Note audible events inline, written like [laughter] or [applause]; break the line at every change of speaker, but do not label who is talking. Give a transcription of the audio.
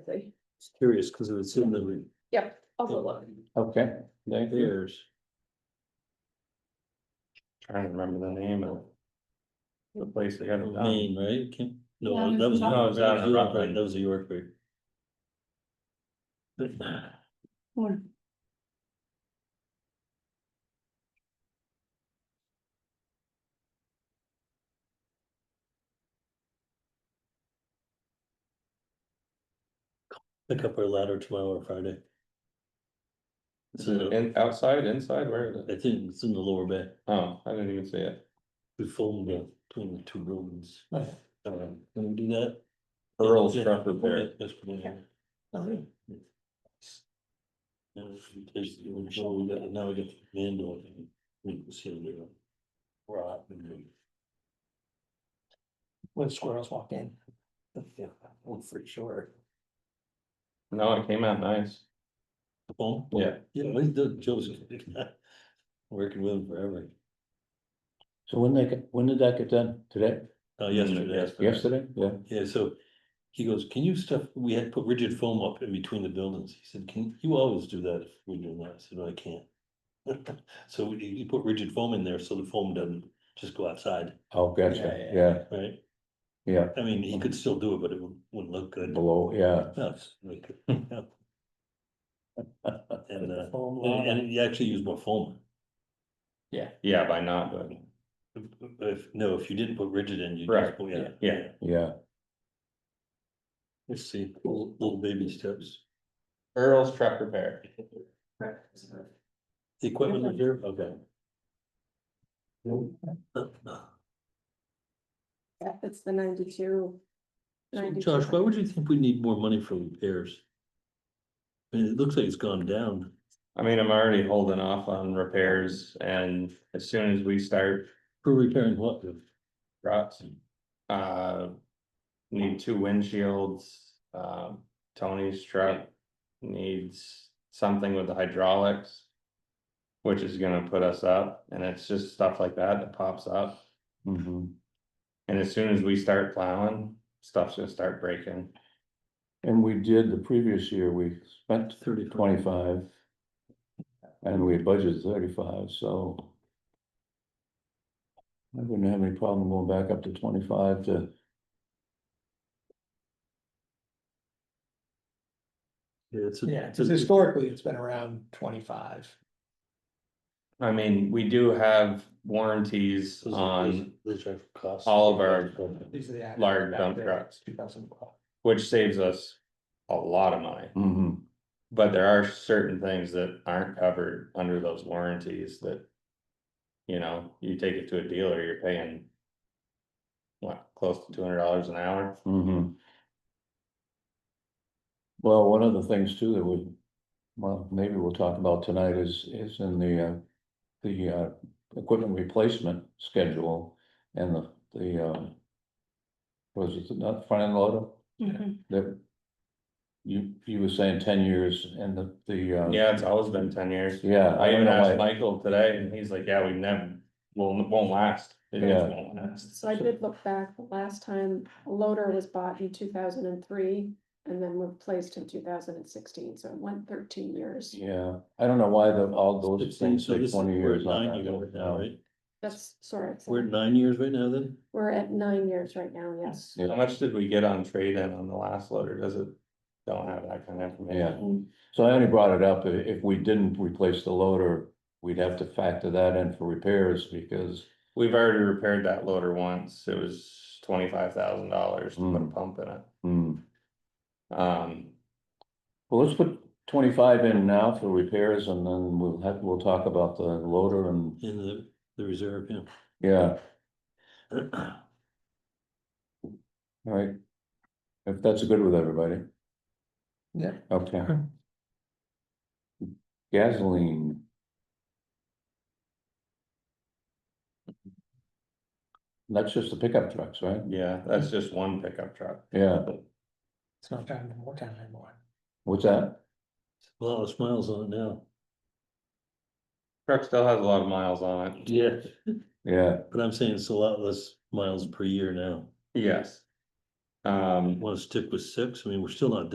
Just curious, because it was in the.
Yep, I'll go look.
Okay, thank you.
There's.
Trying to remember the name of. The place they had it done.
Maine, right? Can-
Yeah,
No, that
there's
was, that was
um, no-
a York, right? That was a York. right? Pick up our ladder tomorrow or Friday. It's in the-
In, outside, inside, where is it?
I think it's in the lower bay.
Oh, I didn't even see it.
We filmed it between the two buildings.
Nice.
Um, Can we do that?
Earl's
Yeah,
truck repair.
okay, that's what I have.
Okay.
Yeah, there's- now we got- Now we got the Mandel. We can see the uh, Rock and.
when squirrels walk in. Yeah, well, for sure.
No, it came out nice.
the phone.
Yeah.
Yeah, we did Joseph. [laughs] Working with him forever.
So when they, get- when did that get done? Today?
Uh,
Mm-hmm.
yesterday.
Yesterday? Yeah.
Yeah, so he goes, can you stuff, we had put rigid foam up in between the buildings. He said, can, you always do that if we do that. I said, "No, I can't. [laughs] So we, you put rigid foam in there so the foam doesn't just go outside,
Oh, gotcha.
Yeah,
Yeah,
right?
yeah.
I mean, he could still do it, but it wouldn't- wouldn't look good.
Below, yeah.
No, it's really good, yeah. And, uh, and, and he actually used more foam.
Yeah. Yeah, by not, but
If, no, if you didn't put rigid in, you
Right,
just, oh, yeah,
yeah.
yeah.
Yeah.
Let's see, little, little baby steps.
Earl's truck repair.
The equipment is here, okay.
Yeah, it's the ninety-two.
So,
92.
Josh, why would you think we need more money for repairs? I mean, it looks like it's gone down.
I mean, I'm already holding off on repairs and as soon as we start
For repairing what?
ruts. Uh, need two windshields, um, Tony's truck needs something with the hydraulics. Which is gonna put us up, and it's just stuff like that that pops up,
Mhm.
and as soon as we start plowing, stuff's gonna start breaking.
And we did the previous year, we spent
Thirty.
twenty-five. And we budgeted thirty-five, so. I wouldn't have any problem going back up to twenty-five to.
Yeah, it's a.
Yeah,
it's a-
because
Hmm.
historically, it's been around twenty-five.
I mean, we do have warranties
those are-
on,
those are costs.
all of our-
These are the.
Large dump trucks.
Two thousand twelve.
which saves us a lot of money.
Mhm.
But there are certain things that aren't covered under those warranties that. You know, you take it to a dealer, you're paying. What, close to two hundred dollars an hour?
Mhm. Well, one of the things too that we, well, maybe we'll talk about tonight is, is in the, uh, the, uh, equipment replacement schedule and the, the, uh, was it not front end loader
Mhm.
that you, you were saying ten years and the, the, uh,
Yeah, it's always been ten years.
yeah.
I even
don't know
asked
why-
Michael today and he's like, yeah, we never, will won't last. It just
Yeah.
won't last."
So I did look back, the last time a loader was bought in two thousand and three and then replaced in two thousand and sixteen, so it went thirteen years.
Yeah, I don't know why the, all those
Fifteen,
things
so
take
this is-
twenty
we're at
years on
nine
that.
years now,
No.
right?
That's, sorry, it's-
We're at nine years right now then?
we're at nine years right now, yes.
Yeah.
How much did we get on trade-in on the last loader? Does it? Don't have that kind of
Yeah.
information.
So I only brought it up, i- if we didn't replace the loader, we'd have to factor that in for repairs because.
We've already repaired that loader once. It was twenty-five thousand dollars to put a
Mm.
pump in it.
hmm,
Um,
Well, let's put twenty-five in now for repairs and then we'll have, we'll talk about the loader and,
In the, the reserve, [clears throat]
yeah,
yeah.
all right. If that's good with everybody.
Yeah.
Okay. Gasoline, that's just the pickup trucks, right?
yeah, that's just one pickup truck.
Yeah,
It's not time to more time anymore.
what's that?
A lot of smiles on it now.
Truck still has a lot of miles on it.
Yeah.
Yeah.
But I'm saying it's a lot less miles per year now.
Yes. Um.
Want to stick with six? I mean, we're still not